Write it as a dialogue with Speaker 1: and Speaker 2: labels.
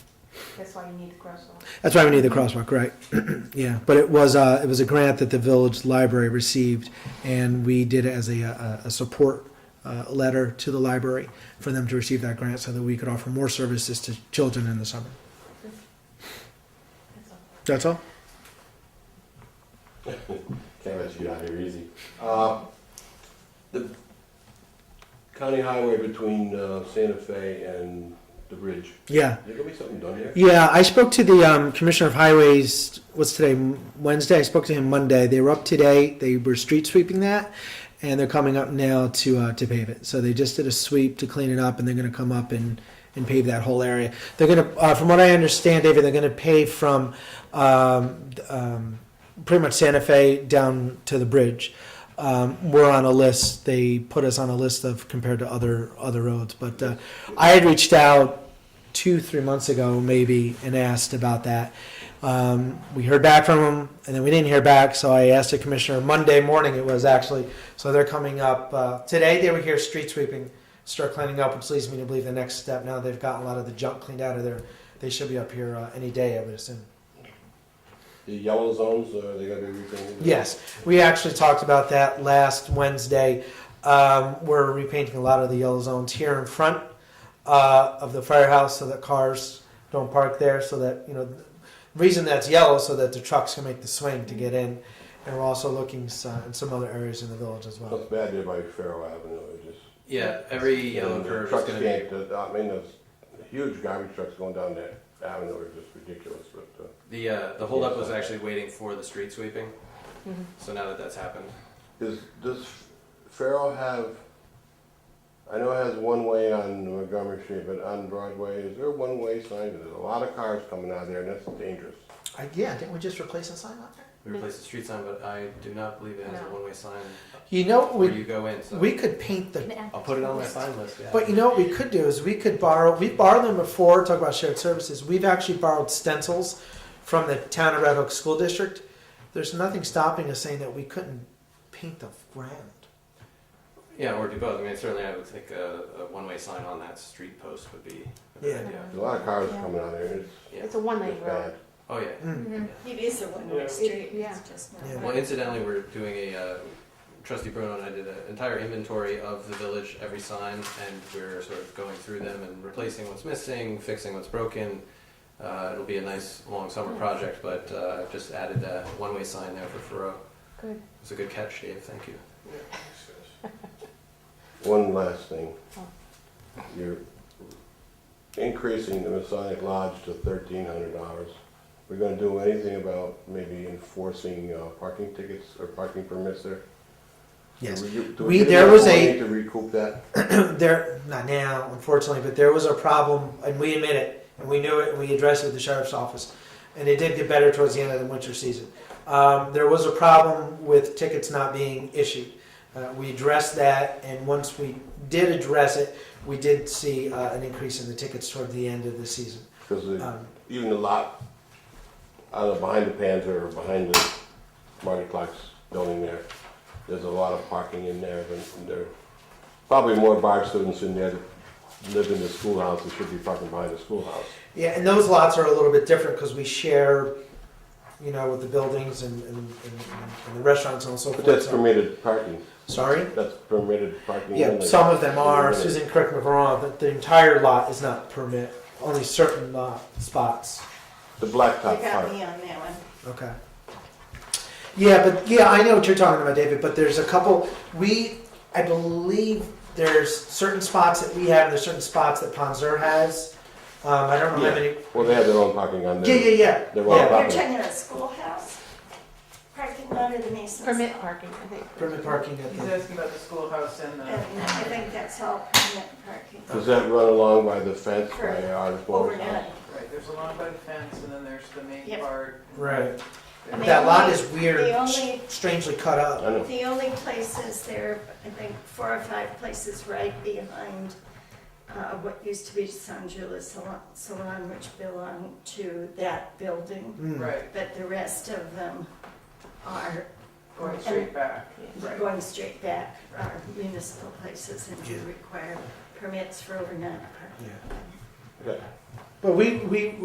Speaker 1: That's why you need the crosswalk.
Speaker 2: That's why we need the crosswalk, right? yeah, but it was uh, it was a grant that the village library received, and we did it as a, a, a support uh, letter to the library for them to receive that grant, so that we could offer more services to children in the summer.
Speaker 1: That's all.
Speaker 2: That's all.
Speaker 3: Can't let you get out here easy. Uh, The county highway between uh, Santa Fe and the bridge,
Speaker 2: Yeah,
Speaker 3: there gonna be something done there?
Speaker 2: yeah. I spoke to the um, commissioner of highways. What's today? Wednesday. I spoke to him Monday. They were up today. They were street sweeping that, and they're coming up now to uh, to pave it. So they just did a sweep to clean it up, and they're going to come up and and pave that whole area. They're going to, uh, from what I understand, David, they're going to pave from um, um, pretty much Santa Fe down to the bridge. Um, we're on a list. They put us on a list of compared to other other roads. But uh, I had reached out two three months ago maybe and asked about that. Um, we heard back from them, and then we didn't hear back. So I asked the commissioner Monday morning. It was actually so they're coming up uh, today. They were here street sweeping, start cleaning up, which leads me to believe the next step. Now they've gotten a lot of the junk cleaned out of there. They should be up here uh, any day, I would assume.
Speaker 3: The yellow zones, are they gonna be repainted?
Speaker 2: Yes, we actually talked about that last Wednesday. Um, we're repainting a lot of the yellow zones here in front uh, of the firehouse so that cars don't park there. So that you know, the reason that's yellow so that the trucks can make the swing to get in. And we're also looking s- uh, in some other areas in the village as well.
Speaker 3: That's bad there by Farrow Avenue, it just.
Speaker 4: Yeah, every yellow
Speaker 3: the
Speaker 4: curve is
Speaker 3: Trucks
Speaker 4: gonna be,
Speaker 3: can't, the- I mean, those huge garbage trucks going down that avenue are just ridiculous, but, uh,
Speaker 4: the, uh, the holdup was actually waiting for the street sweeping, so now that that's happened.
Speaker 3: Does, does Farrell have, I know it has one way on Montgomery Street, but on Broadway, is there a one-way sign? There's a lot of cars coming out of there and that's dangerous.
Speaker 2: I, yeah, didn't we just replace a sign out there?
Speaker 4: We replaced the street sign, but I do not believe it has a
Speaker 1: No.
Speaker 4: one-way sign
Speaker 2: You know, what
Speaker 4: where
Speaker 2: we
Speaker 4: you go in, so.
Speaker 2: we could paint the
Speaker 4: I'll put it on my sign list, yeah.
Speaker 2: But you know what we could do is we could borrow. We've borrowed them before. Talk about shared services. We've actually borrowed stencils from the town of Red Hook School District. There's nothing stopping us saying that we couldn't paint the ground.
Speaker 4: Yeah, or do both, I mean, certainly I would think a, a one-way sign on that street post would be a good
Speaker 2: Yeah.
Speaker 4: idea.
Speaker 3: There's a lot of cars coming out of there and
Speaker 4: Yeah.
Speaker 1: It's a one lane
Speaker 3: it's
Speaker 1: road.
Speaker 3: bad.
Speaker 4: Oh, yeah.
Speaker 2: Mm.
Speaker 1: Mm-hmm.
Speaker 5: It is a one-way street,
Speaker 1: Yeah.
Speaker 5: it's just not.
Speaker 2: Yeah.
Speaker 4: Well, incidentally, we're doing a, uh, trustee Bruno and I did an entire inventory of the village, every sign, and we're sort of going through them and replacing what's missing, fixing what's broken. Uh, it'll be a nice, long summer project, but, uh, I've just added a one-way sign there for Furrow.
Speaker 1: Good.
Speaker 4: It's a good catch, Dave, thank you.
Speaker 3: One last thing.
Speaker 1: Oh.
Speaker 3: You're increasing the Masonic Lodge to thirteen hundred dollars. We're gonna do anything about maybe enforcing uh, parking tickets or parking permits there?
Speaker 2: Yes.
Speaker 3: Do we- do
Speaker 2: We-
Speaker 3: get
Speaker 2: there
Speaker 3: enough
Speaker 2: was a-
Speaker 3: money To recoup that?
Speaker 2: there not now, unfortunately, but there was a problem, and we admit it, and we knew it, and we addressed it at the sheriff's office, and it did get better towards the end of the winter season. Um, there was a problem with tickets not being issued. Uh, we addressed that, and once we did address it, we did see uh, an increase in the tickets toward the end of the season.
Speaker 3: Because
Speaker 2: Um,
Speaker 3: even the lot, either behind the Panther or behind the Marty Clark's building there, there's a lot of parking in there, and there are probably more Bard students in there that live in the schoolhouse that should be parking behind the schoolhouse.
Speaker 2: Yeah, and those lots are a little bit different because we share, you know, with the buildings and, and, and, and the restaurants and so
Speaker 3: But
Speaker 2: forth.
Speaker 3: that's
Speaker 2: so-
Speaker 3: permitted parking,
Speaker 2: Sorry?
Speaker 3: that's permitted parking.
Speaker 2: Yeah,
Speaker 3: only.
Speaker 2: some of them are.
Speaker 3: Limited.
Speaker 2: Susan, correct me if I'm wrong, but the entire lot is not permit, only certain lot spots.
Speaker 3: The
Speaker 5: You
Speaker 3: blacktop
Speaker 5: got
Speaker 3: part.
Speaker 5: me on that one.
Speaker 2: Okay. Yeah, but yeah, I know what you're talking about, David, but there's a couple, we, I believe there's certain spots that we have, and there's certain spots that Ponzer has. Um, I don't know how
Speaker 3: Yeah.
Speaker 2: many.
Speaker 3: Well, they have their own parking on
Speaker 2: Yeah,
Speaker 3: there.
Speaker 2: yeah, yeah.
Speaker 3: They're all
Speaker 2: Yeah,
Speaker 5: You're
Speaker 3: property.
Speaker 5: talking about schoolhouse, parking lot of the Masons.
Speaker 1: Permit parking, I think.
Speaker 2: permit parking at
Speaker 6: He's
Speaker 2: the,
Speaker 6: asking about the schoolhouse and
Speaker 5: And
Speaker 6: the.
Speaker 5: I think that's all permit parking.
Speaker 3: Does that run along by the fence by
Speaker 5: Correct.
Speaker 3: our board's house?
Speaker 5: Overnight.
Speaker 6: Right, there's a lawn by the fence and then there's the main
Speaker 5: Yep.
Speaker 6: part.
Speaker 2: right.
Speaker 5: I mean,
Speaker 2: That lot
Speaker 5: only-
Speaker 2: is weird,
Speaker 5: the only-
Speaker 2: strangely cut
Speaker 3: I
Speaker 2: up.
Speaker 3: know.
Speaker 5: The only places there, I think four or five places right behind uh, what used to be San Julius Salon- Salon, which belonged to that building,
Speaker 2: Mm.
Speaker 6: Right,
Speaker 5: but the rest of them are
Speaker 6: going straight back. Right.
Speaker 5: going straight back, are municipal places and do require permits for overnight parking.
Speaker 2: Yeah.
Speaker 3: Okay.
Speaker 2: But we, we,